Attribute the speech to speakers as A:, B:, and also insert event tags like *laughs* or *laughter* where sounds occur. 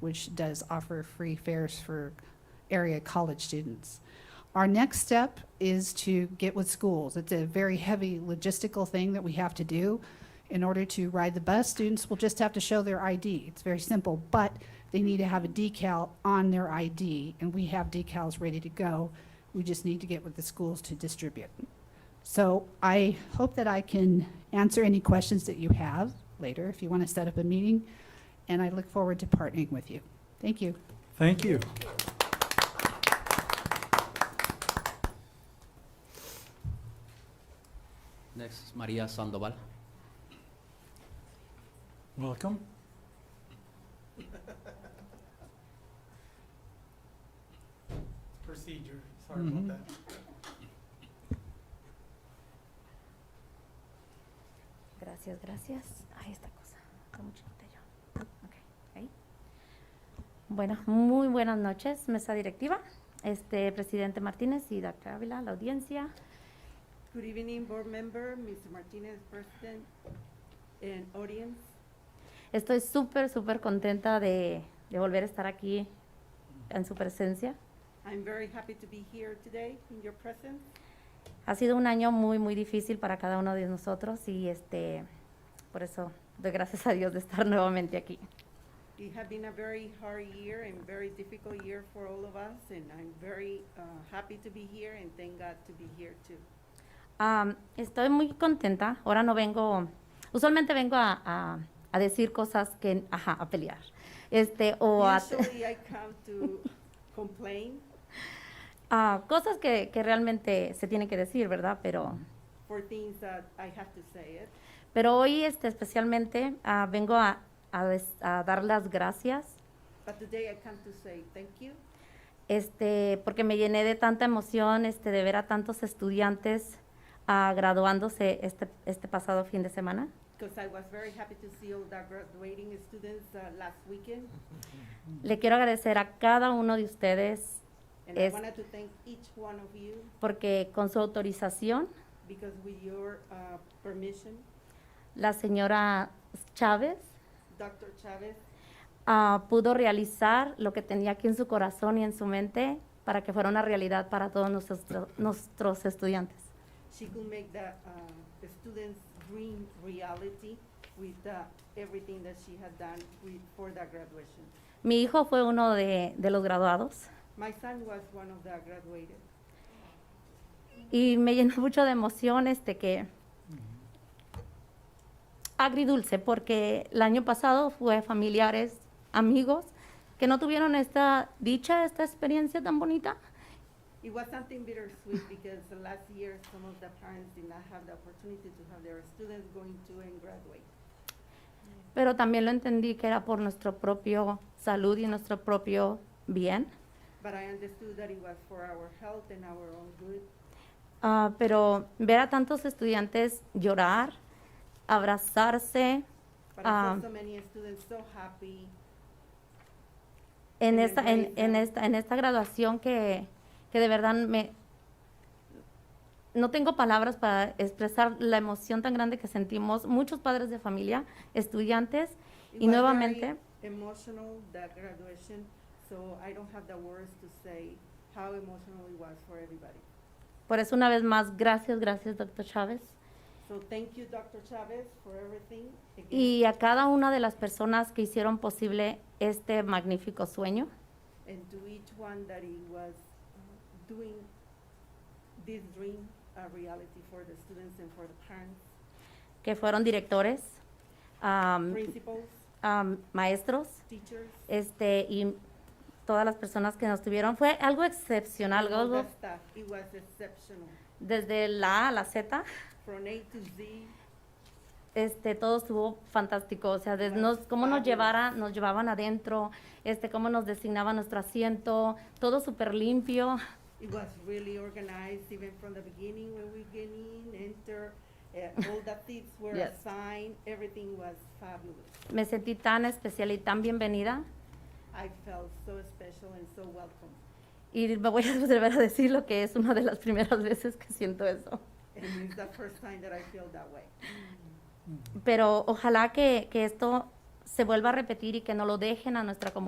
A: which does offer free fares for area college students. Our next step is to get with schools. It's a very heavy logistical thing that we have to do. In order to ride the bus, students will just have to show their ID. It's very simple, but they need to have a decal on their ID, and we have decals ready to go. We just need to get with the schools to distribute. So I hope that I can answer any questions that you have later, if you want to set up a meeting, and I look forward to partnering with you. Thank you.
B: Thank you.
C: Next is Maria Sandoval.
B: Welcome.
D: procedure, sorry
B: Mhm.
D: about that.
E: Gracias, gracias. Ahí esta cosa. Está muy chiquita yo. Ok, ahí. Bueno, muy buenas noches, mesa directiva, este presidente Martínez y doctor Ávila, la audiencia.
F: Good evening, board member, Mr. Martinez, president, and audience.
E: Estoy súper, súper contenta de, de volver a estar aquí en su presencia.
F: I'm very happy to be here today in your presence.
E: Ha sido un año muy, muy difícil para cada uno de nosotros y este, por eso doy gracias a Dios de estar *laughs* nuevamente aquí.
F: It has been a very hard year and very difficult year for all of us, and I'm very uh, happy to be here and thank God to be here too.
E: Am, estoy muy contenta. Ahora no vengo, usualmente vengo a, a- a decir cosas que, ajá, a pelear. Este, o a,
F: Usually I come to complain
E: *laughs* a cosas que, que realmente se tienen que decir, ¿verdad? Pero,
F: for things that I have to say it.
E: pero hoy este, especialmente ah, vengo a, a des- a dar las gracias
F: But today I come to say thank you
E: este, porque me llené de tanta emoción este, de ver a tantos estudiantes ah, graduándose este, este pasado fin de semana.
F: because I was very happy to see all the graduating students uh, last weekend.
E: Le quiero agradecer a cada uno de ustedes
F: And I
E: Es-
F: wanted to thank each one of you
E: porque con su autorización
F: Because with your uh, permission,
E: la señora Chávez
F: Dr. Chavez,
E: ah, pudo realizar lo que tenía aquí en su corazón y en su mente para que fuera una realidad para todos nuestros, nuestros estudiantes.
F: she could make the, uh, the students' dream reality with uh, everything that she had done with, for the graduation.
E: Mi hijo fue uno de, de los graduados
F: My son was one of the graduated,
E: y me llenó *laughs* mucho de emoción este que agridulce porque el año pasado fue familiares, amigos que no tuvieron esta dicha, esta experiencia tan bonita
F: It was something bittersweet because the last year, some of the parents did not have the opportunity to have their students going to and graduate.
E: pero también lo entendí que era por nuestro propio salud y nuestro propio bien.
F: But I understood that it was for our health and our own good.
E: Ah, pero ver a tantos estudiantes llorar, abrazarse
F: But I
E: Ah.
F: saw so many students so happy.
E: en
F: En el
E: esta, en,
F: Raíz,
E: en
F: ¿no?
E: esta, en esta graduación que, que de verdad me... No tengo palabras para expresar la emoción tan grande que sentimos muchos padres de familia, estudiantes, Y
F: It was very
E: nuevamente-
F: emotional that graduation, so I don't have the words to say how emotional it was for everybody.
E: por eso una vez más, gracias, gracias, doctor Chávez.
F: So thank you, Dr. Chavez, for everything. again.
E: Y a cada una de las personas que hicieron posible este magnífico sueño.
F: And to each one that he was doing this dream a reality for the students and for the parents,
E: que fueron directores, am,
F: principals,
E: am, maestros,
F: teachers,
E: este, y todas las personas que nos tuvieron. Fue algo
F: and
E: excepcional,
F: all
E: algo
F: the staff. It was exceptional.
E: desde la A a la Z,
F: From A to Z,
E: este, todo estuvo fantástico. O sea, de- nos- cómo nos llevara, nos llevaban adentro, este, cómo nos designaban nuestro asiento, todo súper limpio.
F: It was really organized, even from the beginning when we get in, enter, uh, all the seats were
E: Yes.
F: assigned, everything was fabulous.
E: Me sentí tan especial y tan bienvenida.
F: I felt so special and so welcome.
E: Y me voy a *laughs* volver a decir lo que es una de las primeras veces que siento eso.
F: And it's the first time that I feel that way.
E: pero ojalá que, que esto se vuelva a repetir y que no lo dejen a nuestra comunidad.